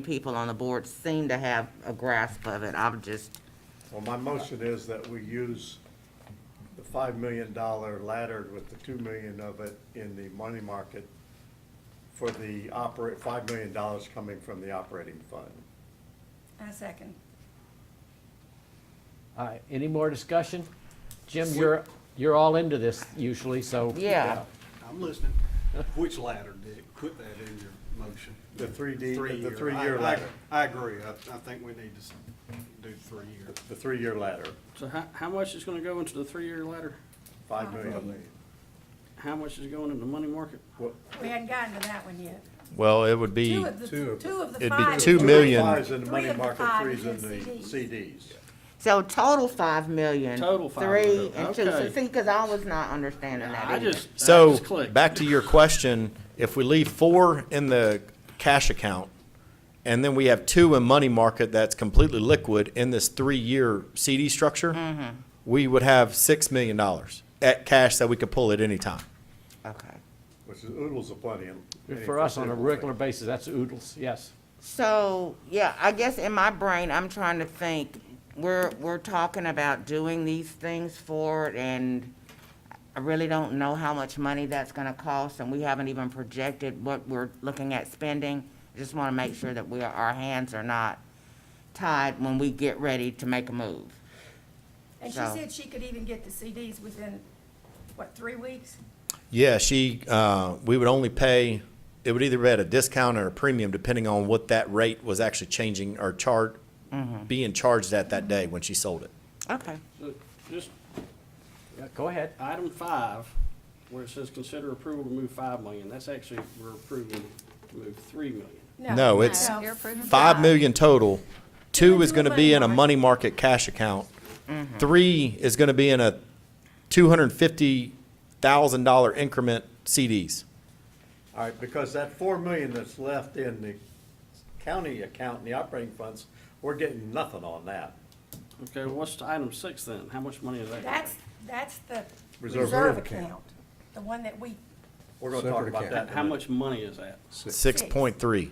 people on the board seem to have a grasp of it. I'm just, Well, my motion is that we use the five million dollar laddered with the two million of it in the money market for the operate, five million dollars coming from the operating fund. I second. All right, any more discussion? Jim, you're, you're all into this usually, so. yeah. I'm listening. Which ladder, Dick? Put that in your motion. The three D, the Three-year. three-year I- I- ladder, I agree. I, I think we need to s- do three-year. the three-year ladder, So how, how much is gonna go into the three-year ladder? five million. How much is going in the money market? What- We hadn't gotten to that one yet. Well, it would be, Two of the, Two of two of the it'd be five. two Three million. Fives in the Three money of the market, five threes is in in the CDs. So total five million. Total five Three million, and two. So okay. see, because I was not understanding that I either. just, I so, just clicked. back to your question, if we leave four in the cash account, and then we have two in money market that's completely liquid in this three-year CD structure, we would have six million dollars at cash that we could pull at any time. Okay. Which is oodles of plenty. in any For us on a foreseeable regular thing. basis, that's oodles, yes. So, yeah, I guess in my brain, I'm trying to think, we're, we're talking about doing these things for it and I really don't know how much money that's gonna cost and we haven't even projected what we're looking at spending. Just wanna make sure that we are, our hands are not tied when we get ready to make a move. And she So- said she could even get the CDs within, what, three weeks? Yeah, she, uh, we would only pay, it would either be at a discount or a premium, depending on what that rate was actually changing or charged, being charged at that day when she sold it. Okay. So, Just Yeah, Go ahead. item five, where it says consider approval to move five million, that's actually, we're approving to move three million. No, it's no, five million total. Two then is do a gonna be in a money money market cash account. Mm-hmm. Three is gonna be in a two hundred and fifty thousand dollar increment CDs. All right, because that four million that's left in the county account and the operating funds, we're getting nothing on that. Okay, what's to item six then? How much money is that? That's, that's the Reserve reserve account. account, the one that we, We're gonna talk Separate about that. in a How minute. much money is that? Six point three.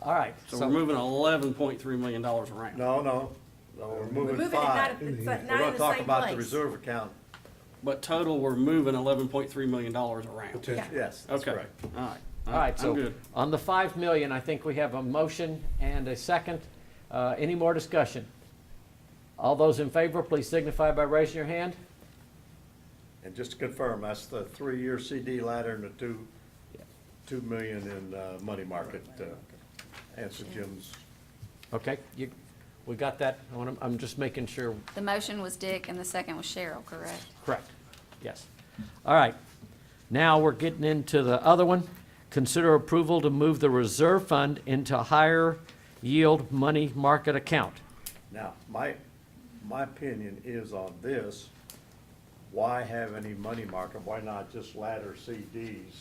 All right, So we're so, moving eleven point three million dollars around. No, no, no, we're moving moving it not, five. but not in We're gonna the talk same about the place. reserve account. But total, we're moving eleven point three million dollars around. Yeah. Yes, that's Okay, all correct. right. all right, I'm so good. on the five million, I think we have a motion and a second. Uh, any more discussion? All those in favor, please signify by raising your hand. And just to confirm, that's the three-year CD ladder and the two, two million in, uh, money market, uh, answer Jim's. Okay, you, we got that. I want to, I'm just making sure The motion was Dick and the second was Cheryl, correct? Correct, yes. All right, now we're getting into the other one. Consider approval to move the reserve fund into higher yield money market account. Now, my, my opinion is on this, why have any money market? Why not just ladder CDs,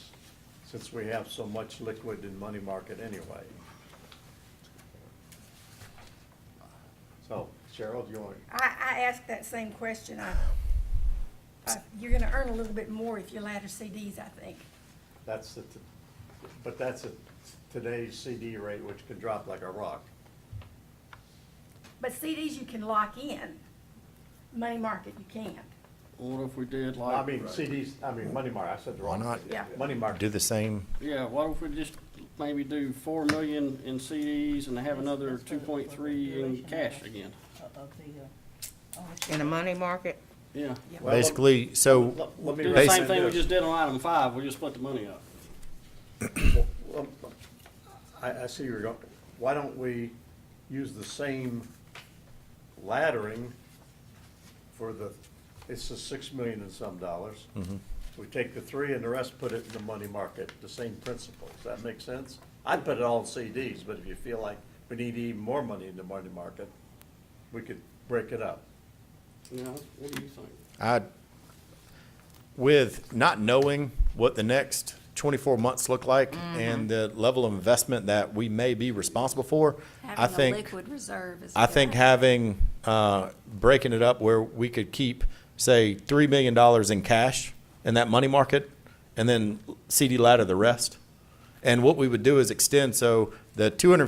since we have so much liquid in money market anyway? So, Cheryl, do you want, I, I asked that same question. I, I- you're gonna earn a little bit more if you ladder CDs, I think. that's the, but that's at today's CD rate, which could drop like a rock. But CDs you can lock in, money market you can't. What if we did like? I mean, CDs, I mean, money market, I said the wrong. Why not? thing. Yeah. Money market. Do the same. Yeah, what if we just maybe do four million in CDs and have another two point three in cash again? In the money market? Yeah. Well, let- Basically, so, let- let me Do the same Basically- thing we just did on item five, we just split the money up. Well, I, I see you're going, why don't we use the same laddering for the, it's the six million and some dollars. We take the three and the rest, put it in the money market, the same principle. Does that make sense? I'd put it all in CDs, but if you feel like we need even more money in the money market, we could break it up. You know, what do you think? I, with not knowing what the next twenty-four months look like Mm-hmm. and the level of investment that we may be responsible for, I Having think. a liquid reserve is. a I good think idea. having, uh, breaking it up where we could keep, say, three million dollars in cash in that money market, and then CD ladder the rest. And what we would do is extend, so the two hundred